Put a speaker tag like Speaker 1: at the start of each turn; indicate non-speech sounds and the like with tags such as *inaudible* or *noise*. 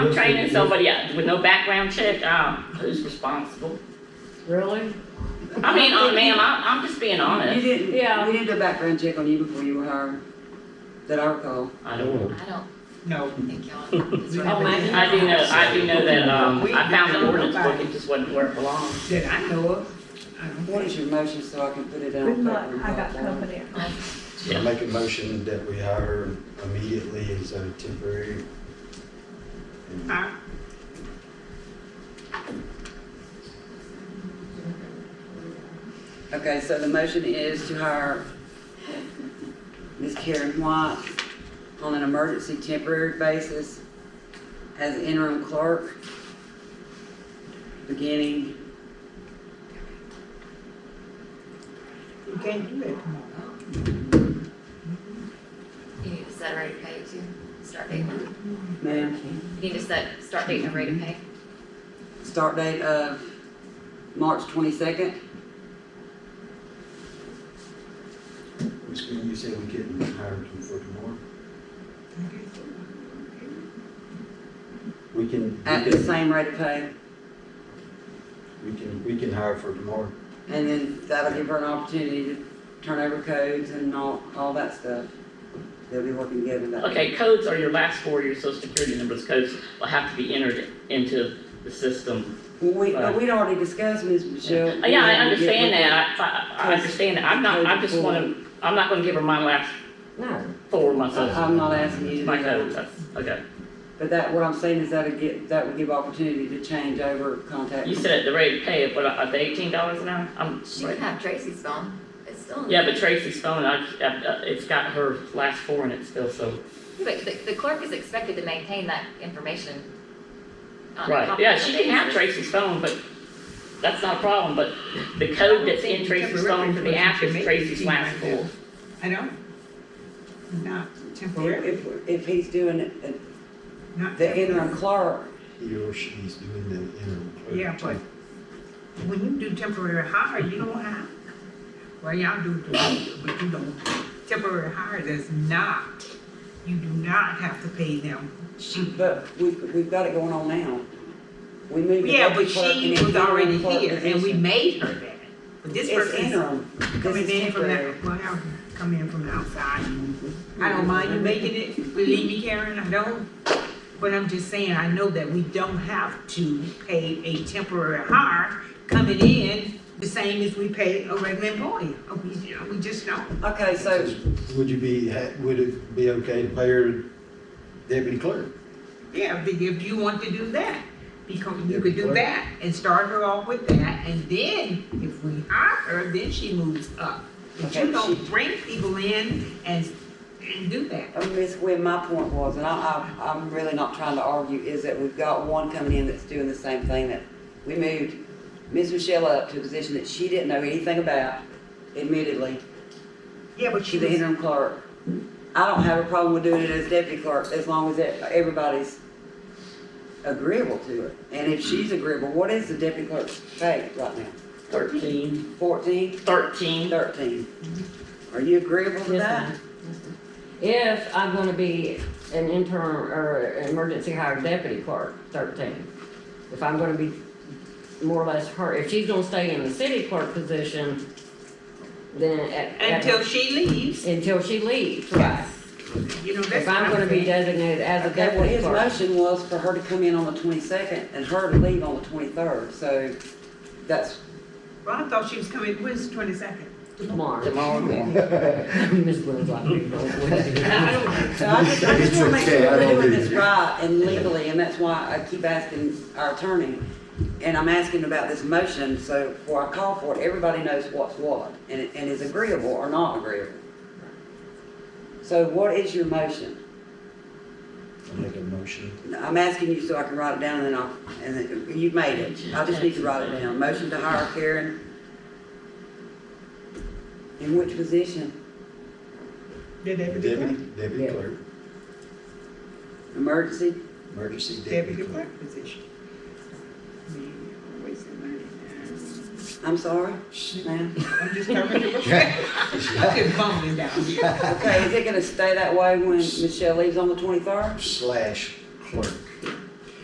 Speaker 1: I'm training somebody up with no background check, um, who's responsible?
Speaker 2: Really?
Speaker 1: I mean, oh, ma'am, I'm, I'm just being
Speaker 3: You
Speaker 1: honest.
Speaker 3: didn't,
Speaker 2: Yeah.
Speaker 3: we didn't do a background check on you before you were hired, that I recall.
Speaker 1: I don't,
Speaker 4: I don't
Speaker 5: No.
Speaker 4: think y'all. it's right.
Speaker 2: Oh, my-
Speaker 1: I do know, I do know that, um, I found an ordinance book, it just wasn't where it belonged.
Speaker 5: That I know of. I don't
Speaker 3: What
Speaker 5: think-
Speaker 3: is your motion so I can put it down?
Speaker 6: Good luck,
Speaker 3: on paper?
Speaker 6: I got company.
Speaker 7: I make a motion that we hire immediately as a temporary. and
Speaker 5: I-
Speaker 3: Okay, so the motion is to hire Ms. Karen White on an emergency temporary basis as interim clerk, beginning,
Speaker 5: You can't do that tomorrow.
Speaker 4: You need to set a rate of pay too, start date, you
Speaker 3: ma'am,
Speaker 4: need to set, start date and rate of pay.
Speaker 3: start date of March twenty-second.
Speaker 7: Which means you said we couldn't hire him for tomorrow. We can,
Speaker 5: Uh,
Speaker 7: we
Speaker 3: At the
Speaker 7: can,
Speaker 3: same rate of pay,
Speaker 7: we can, we can hire for tomorrow.
Speaker 3: and then that'll give her an opportunity to turn over codes and all, all that stuff. They'll be working together that.
Speaker 1: Okay, codes are your last four, of your social security numbers, codes will have to be entered into the system.
Speaker 3: Well, we, but we'd already discussed, Ms. Michelle.
Speaker 1: Uh, Yeah, I understand that, I, I- I understand that, I'm not, I just
Speaker 3: Code four.
Speaker 1: wanna, I'm not gonna give her my last
Speaker 3: No,
Speaker 1: four of my
Speaker 3: I-
Speaker 1: social,
Speaker 3: I'm not asking you to
Speaker 1: my
Speaker 3: do
Speaker 1: codes,
Speaker 3: that.
Speaker 1: that's, okay.
Speaker 3: But that, what I'm saying is that'd get, that would give opportunity to change over contact.
Speaker 1: You said at the rate of pay, of what, at the eighteen dollars an hour? I'm,
Speaker 4: She can have Tracy's phone, it's still. in-
Speaker 1: yeah, but Tracy's phone, I, I, uh, it's got her last four in it still, so.
Speaker 4: But the, the clerk is expected to maintain that information. on a
Speaker 1: Right, yeah, she
Speaker 4: confidential
Speaker 1: can have
Speaker 4: basis.
Speaker 1: Tracy's phone, but that's not a problem, but the code that's in Tracy's phone for the app is Tracy's last four.
Speaker 5: I know. Not temporary,
Speaker 3: If, if he's doing it, at
Speaker 5: not.
Speaker 3: the interim clerk,
Speaker 7: He or she's doing the interim. clerk.
Speaker 5: Yeah, but when you do temporary hire, you don't have, well, y'all do, do, but you don't. Temporary hire does not, you do not have to pay them. She,
Speaker 3: but we've, we've got it going on now. We moved the
Speaker 5: yeah, but
Speaker 3: deputy clerk
Speaker 5: she
Speaker 3: and
Speaker 5: was already
Speaker 3: interim clerk
Speaker 5: here and we
Speaker 3: position.
Speaker 5: made her that. But this
Speaker 3: It's
Speaker 5: person
Speaker 3: interim, this
Speaker 5: coming
Speaker 3: is
Speaker 5: in from
Speaker 3: temporary.
Speaker 5: that, well, I'll come in from the outside. I don't mind you making it, believe me, Karen, I don't. But I'm just saying, I know that we don't have to pay a temporary hire coming in the same as we pay a regular employee. Uh, We, uh, we just don't.
Speaker 3: Okay, so
Speaker 7: Would you be, ha- would it be okay to pay her deputy clerk?
Speaker 5: Yeah, if if you want to do that, because you could
Speaker 7: Yeah,
Speaker 5: do
Speaker 7: but-
Speaker 5: that and start her off with that, and then if we hire her, then she moves up. But
Speaker 3: Okay,
Speaker 5: you don't
Speaker 3: she-
Speaker 5: bring people in and, and do that.
Speaker 3: Uh, Miss Wynn, my point was, and I, I, I'm really not trying to argue, is that we've got one coming in that's doing the same thing that we moved Miss Michelle up to a position that she didn't know anything about, admittedly,
Speaker 5: Yeah, but she
Speaker 3: she's the
Speaker 5: was
Speaker 3: interim clerk. I don't have a problem with doing it as deputy clerk, as long as e- everybody's agreeable to it. And if she's agreeable, what is the deputy clerk's pay right now?
Speaker 1: Thirteen.
Speaker 3: Fourteen,
Speaker 1: Thirteen.
Speaker 3: thirteen? Are you agreeable to
Speaker 2: Yes,
Speaker 3: that?
Speaker 2: If I'm gonna be an intern or emergency hired deputy clerk, thirteen. If I'm gonna be more or less her, if she's gonna stay in the city clerk position, then at. at-
Speaker 5: Until she leaves,
Speaker 2: Until she leaves, right.
Speaker 5: you know, that's
Speaker 2: If
Speaker 5: what
Speaker 2: I'm gonna be
Speaker 5: saying.
Speaker 2: designated as a
Speaker 3: Okay, well,
Speaker 2: deputy
Speaker 3: his
Speaker 2: clerk.
Speaker 3: motion was for her to come in on the twenty-second and her to leave on the twenty-third, so that's,
Speaker 5: Well, I thought she was coming, when's the twenty-second?
Speaker 2: Tomorrow.
Speaker 1: Tomorrow.
Speaker 2: *laughs* Miss Williams, I think, don't wait.
Speaker 5: I don't,
Speaker 3: so I just, I just wanna make
Speaker 7: It's okay,
Speaker 3: sure
Speaker 7: I
Speaker 3: we're
Speaker 7: don't
Speaker 3: doing
Speaker 7: do
Speaker 3: this
Speaker 7: it.
Speaker 3: right and legally, and that's why I keep asking our attorney. And I'm asking about this motion, so before I call for it, everybody knows what's what, and, and is agreeable or not agreeable. So what is your motion?
Speaker 7: I make a motion.
Speaker 3: I'm asking you so I can write it down and then I'll, and then, you made it, I just need to write it down, motion to hire Karen. In which position?
Speaker 5: the deputy
Speaker 7: Deputy,
Speaker 5: clerk,
Speaker 7: deputy
Speaker 2: Yeah.
Speaker 7: clerk,
Speaker 3: Emergency,
Speaker 7: emergency
Speaker 5: deputy
Speaker 7: deputy clerk.
Speaker 5: clerk position. I mean, always in my-
Speaker 3: I'm sorry, ma'am.
Speaker 5: I'm just covering it. *laughs* I'm just bumming down.
Speaker 3: Okay, is it gonna stay that way when Michelle leaves on the twenty-third?
Speaker 7: Slash clerk.